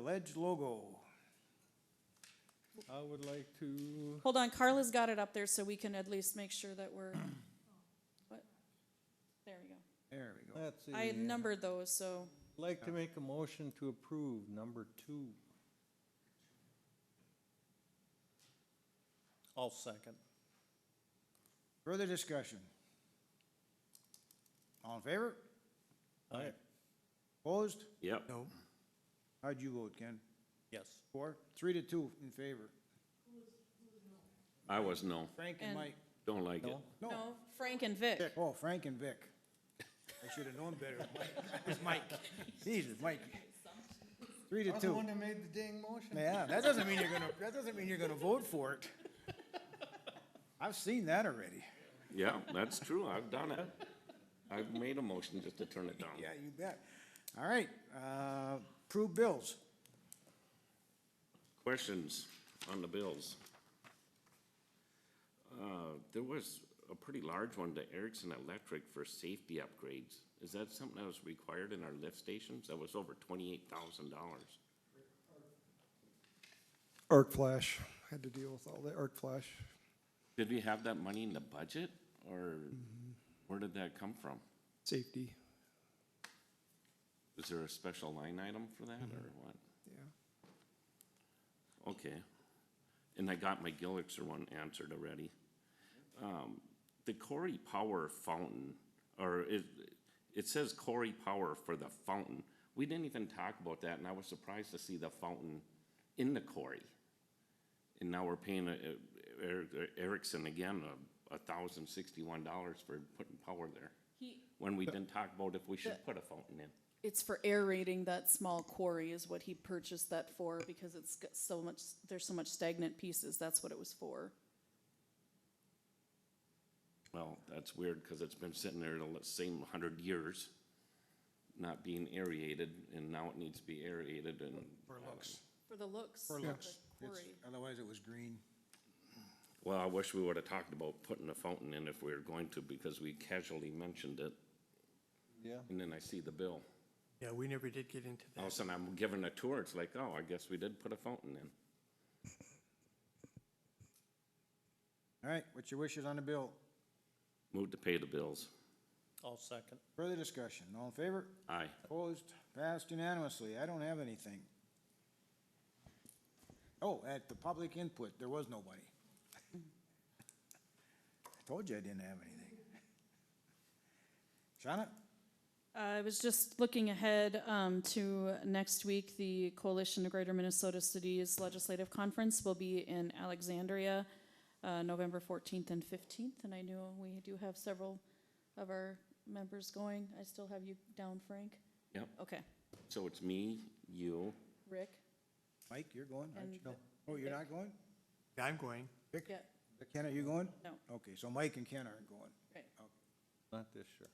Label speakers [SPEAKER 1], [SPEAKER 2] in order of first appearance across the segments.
[SPEAKER 1] Ledge logo.
[SPEAKER 2] I would like to,
[SPEAKER 3] Hold on, Carla's got it up there so we can at least make sure that we're, what? There we go.
[SPEAKER 1] There we go.
[SPEAKER 2] let's see.
[SPEAKER 3] I had numbered those, so,
[SPEAKER 2] Like to make a motion to approve number two.
[SPEAKER 4] I'll second.
[SPEAKER 1] Further discussion? All in favor?
[SPEAKER 4] Aye.
[SPEAKER 1] Opposed?
[SPEAKER 5] Yep.
[SPEAKER 1] No. How'd you vote, Ken?
[SPEAKER 4] Yes.
[SPEAKER 1] Four? Three to two in favor.
[SPEAKER 5] I was no,
[SPEAKER 1] Frank and
[SPEAKER 3] And-
[SPEAKER 1] Mike.
[SPEAKER 5] don't like it.
[SPEAKER 1] No.
[SPEAKER 2] No?
[SPEAKER 3] no, Frank and Vic.
[SPEAKER 1] Oh, Frank and Vic. I should have known better. Mike- It's Mike. Jesus, Mike. Three to two.
[SPEAKER 2] that made the dang motion.
[SPEAKER 1] Yeah, that doesn't mean you're gonna, that doesn't mean you're gonna vote for it. I've seen that already.
[SPEAKER 5] Yeah, that's true, I've done it. I've made a motion just to turn it down.
[SPEAKER 1] Yeah, you bet. All right, uh, approve bills.
[SPEAKER 5] Questions on the bills? Uh, There was a pretty large one to Erickson Electric for safety upgrades. Is that something that was required in our lift stations? That was over twenty-eight thousand dollars.
[SPEAKER 6] Arc Flash, had to deal with all the Arc Flash.
[SPEAKER 5] Did we have that money in the budget, or
[SPEAKER 1] Mm-hmm.
[SPEAKER 5] where did that come from?
[SPEAKER 6] Safety,
[SPEAKER 5] Is there a special line item for that, or what?
[SPEAKER 6] yeah.
[SPEAKER 5] Okay. And I got my Gillixer one answered already. Um, The Corey Power fountain, or it, it says Corey Power for the fountain. We didn't even talk about that, and I was surprised to see the fountain in the Corey. And now we're paying uh, Er- Erickson again, uh, a thousand sixty-one dollars for putting power there,
[SPEAKER 3] He-
[SPEAKER 5] when we didn't talk about if we should put a fountain in.
[SPEAKER 3] It's for aerating that small quarry is what he purchased that for because it's got so much, there's so much stagnant pieces. That's what it was for.
[SPEAKER 5] Well, that's weird, because it's been sitting there the same hundred years, not being aerated, and now it needs to be aerated, and um,
[SPEAKER 1] For looks.
[SPEAKER 3] For the looks.
[SPEAKER 1] For
[SPEAKER 3] of
[SPEAKER 1] looks.
[SPEAKER 3] the quarry.
[SPEAKER 1] It's- Otherwise it was green.
[SPEAKER 5] Well, I wish we would have talked about putting a fountain in if we were going to, because we casually mentioned it,
[SPEAKER 2] Yeah.
[SPEAKER 5] and then I see the bill.
[SPEAKER 7] Yeah, we never did get into
[SPEAKER 5] All of a
[SPEAKER 7] that.
[SPEAKER 5] sudden, I'm given a tour, it's like, oh, I guess we did put a fountain in.
[SPEAKER 1] All right, what's your wishes on the bill?
[SPEAKER 5] Move to pay the bills.
[SPEAKER 4] I'll second.
[SPEAKER 1] Further discussion, all in favor?
[SPEAKER 5] Aye.
[SPEAKER 1] Opposed? Passed unanimously. I don't have anything. Oh, at the public input, there was nobody. I told you I didn't have anything. Shauna?
[SPEAKER 3] Uh, I was just looking ahead um, to next week. The Coalition of Greater Minnesota Cities Legislative Conference will be in Alexandria, uh, November 14th and 15th. And I know we do have several of our members going. I still have you down, Frank?
[SPEAKER 5] Yep,
[SPEAKER 3] Okay,
[SPEAKER 5] so it's me, you,
[SPEAKER 3] Rick?
[SPEAKER 1] Mike, you're going? aren't you?
[SPEAKER 3] And-
[SPEAKER 1] No. Oh, you're not going?
[SPEAKER 7] I'm going.
[SPEAKER 3] Yeah,
[SPEAKER 1] Ken, are you going?
[SPEAKER 3] No.
[SPEAKER 1] Okay, so Mike and Ken aren't going.
[SPEAKER 3] right.
[SPEAKER 2] Not this year.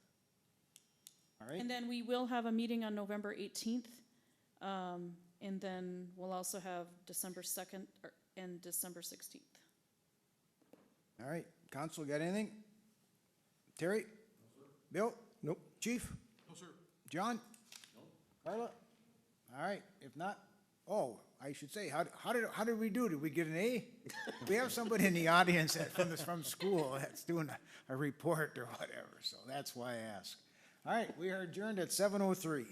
[SPEAKER 1] All right?
[SPEAKER 3] And then we will have a meeting on November 18th. um, And then we'll also have December 2nd or- and December 16th.
[SPEAKER 1] All right, council, got anything? Terry? Bill? Nope. Chief? No, sir. John? No. Carla? All right, if not, oh, I should say, how, how did, how did we do? Did we get an A? We have somebody in the audience that, from, this- from school that's doing a, a report or whatever, so that's why I ask. All right, we are adjourned at seven oh three.